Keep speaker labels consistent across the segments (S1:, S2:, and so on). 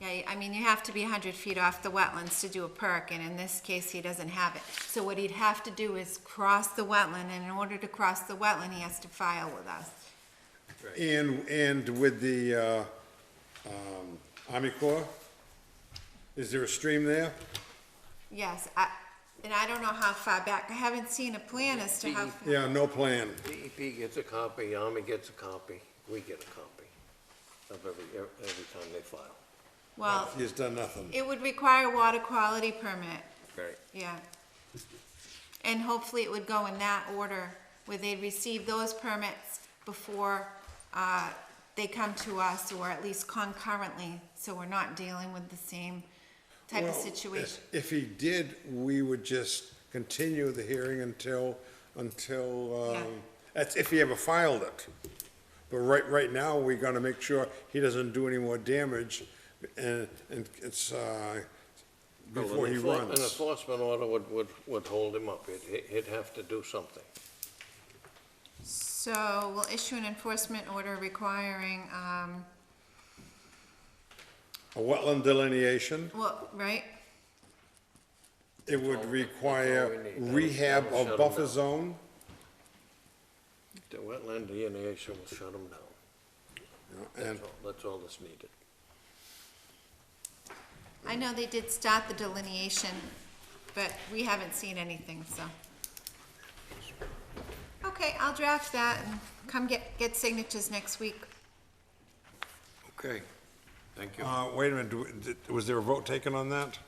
S1: say, I mean, you have to be hundred feet off the wetlands to do a perk, and in this case, he doesn't have it. So what he'd have to do is cross the wetland, and in order to cross the wetland, he has to file with us.
S2: And, and with the, uh, um, Army Corps, is there a stream there?
S1: Yes, I, and I don't know how far back, I haven't seen a plan as to how. far-
S2: Yeah, no plan.
S3: DEP E gets a copy, Army gets a copy, we get a copy of every, every time they file.
S1: Well,
S2: He's done nothing.
S1: it would require water quality permit,
S3: Right.
S1: yeah. And hopefully it would go in that order, where they'd receive those permits before, uh, they come to us, or at least concurrently, so we're not dealing with the same type of
S2: Well,
S1: situation.
S2: If if he did, we would just continue the hearing until, until,
S1: Yeah.
S2: um, that's if he ever filed it. But right, right now, we gotta make sure he doesn't do any more damage and, and it's, uh,
S3: Oh,
S2: before he
S3: An
S2: runs.
S3: enforcement order would, would, would hold him up. He'd, he'd have to do something.
S1: So we'll issue an enforcement order requiring, um,
S2: A wetland delineation,
S1: well, right?
S2: it would require
S3: That's all we need.
S2: rehab
S3: That'll shut
S2: of
S3: 'em
S2: buffer
S3: down.
S2: zone.
S3: The wetland delineation will shut him down.
S2: And
S3: That's all, that's all that's needed.
S1: I know they did start the delineation, but we haven't seen anything, so. Okay, I'll draft that and come get, get signatures next week.
S3: Okay, thank you.
S2: Uh, wait a minute, do we- did- was there a vote taken on that?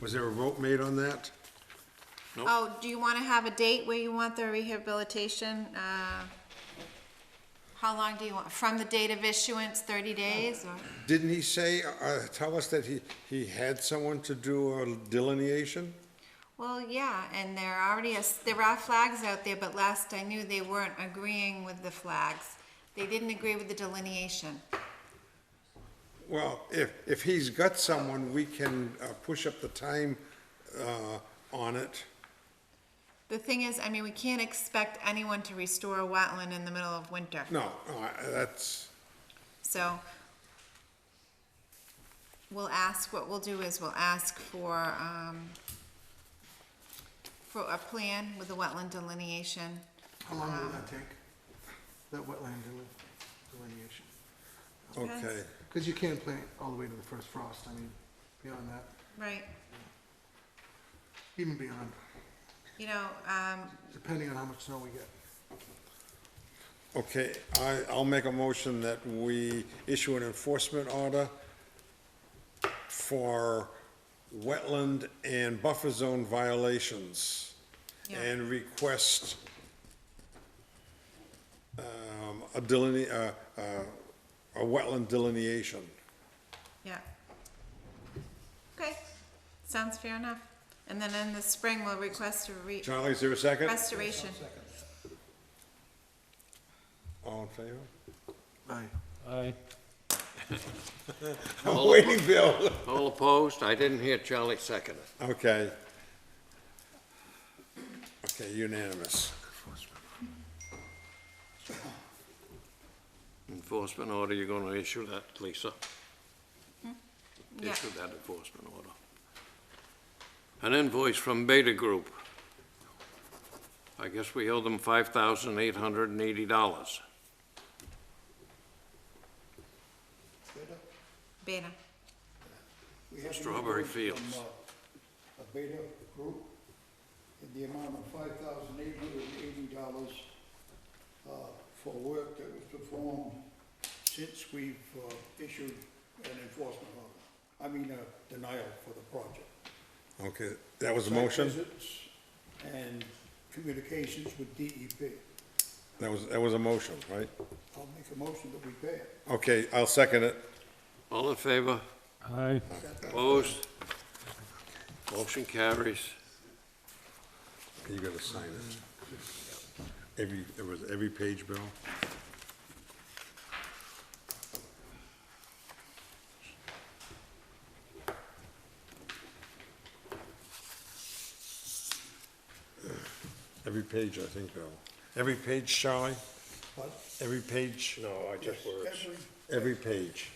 S2: Was there a vote made on that?
S1: Oh, do you wanna have a date where you want the rehabilitation, uh, how long do you want, from the date of issuance, thirty days, or?
S2: Didn't he say, uh, tell us that he, he had someone to do a delineation?
S1: Well, yeah, and there already is, there are flags out there, but last I knew, they weren't agreeing with the flags. They didn't agree with the delineation.
S2: Well, if, if he's got someone, we can uh, push up the time uh, on it.
S1: The thing is, I mean, we can't expect anyone to restore a wetland in the middle of winter,
S2: No, no, I- that's,
S1: so. We'll ask, what we'll do is we'll ask for, um, for a plan with the wetland delineation.
S4: How long will that take? That wetland deli- delineation?
S2: okay.
S4: Because you can't plant all the way to the first frost, I mean, beyond that,
S1: Right,
S4: even beyond,
S1: you know, um,
S4: depending on how much snow we get.
S2: Okay, I, I'll make a motion that we issue an enforcement order for wetland and buffer zone violations.
S1: Yeah.
S2: And request um, a deline, uh, uh, a wetland delineation.
S1: yeah. Okay, sounds fair enough. And then in the spring, we'll request a re-
S2: Charlie, is there a second?
S1: restoration.
S2: All in favor?
S4: Aye.
S5: Aye.
S2: I'm waiting, Bill.
S3: All opposed? I didn't hear Charlie second it.
S2: Okay. Okay, unanimous.
S3: Enforcement order, you're gonna issue that, Lisa?
S1: Yeah.
S3: Issue that enforcement order. An invoice from Beta Group. I guess we owe them five thousand eight hundred and eighty dollars.
S1: Beta,
S6: We have an
S3: Strawberry
S6: invoice from,
S3: fields.
S6: uh, A Beta Group in the amount of five thousand eight hundred and eighty dollars uh, for work that was performed since we've uh, issued an enforcement order, I mean, a denial for the project.
S2: Okay, that was a motion?
S6: Site visits And communications with DEP.
S2: That was, that was a motion, right?
S6: I'll make a motion that we pay it.
S2: Okay, I'll second it.
S3: All in favor?
S5: Aye.
S3: Opposed? Motion carries.
S2: You gotta sign it. Every, it was every page, Bill? Every page, I think, Bill. Every page, Charlie?
S6: What?
S2: Every page?
S3: No, I
S6: Yes, Every
S2: Every page.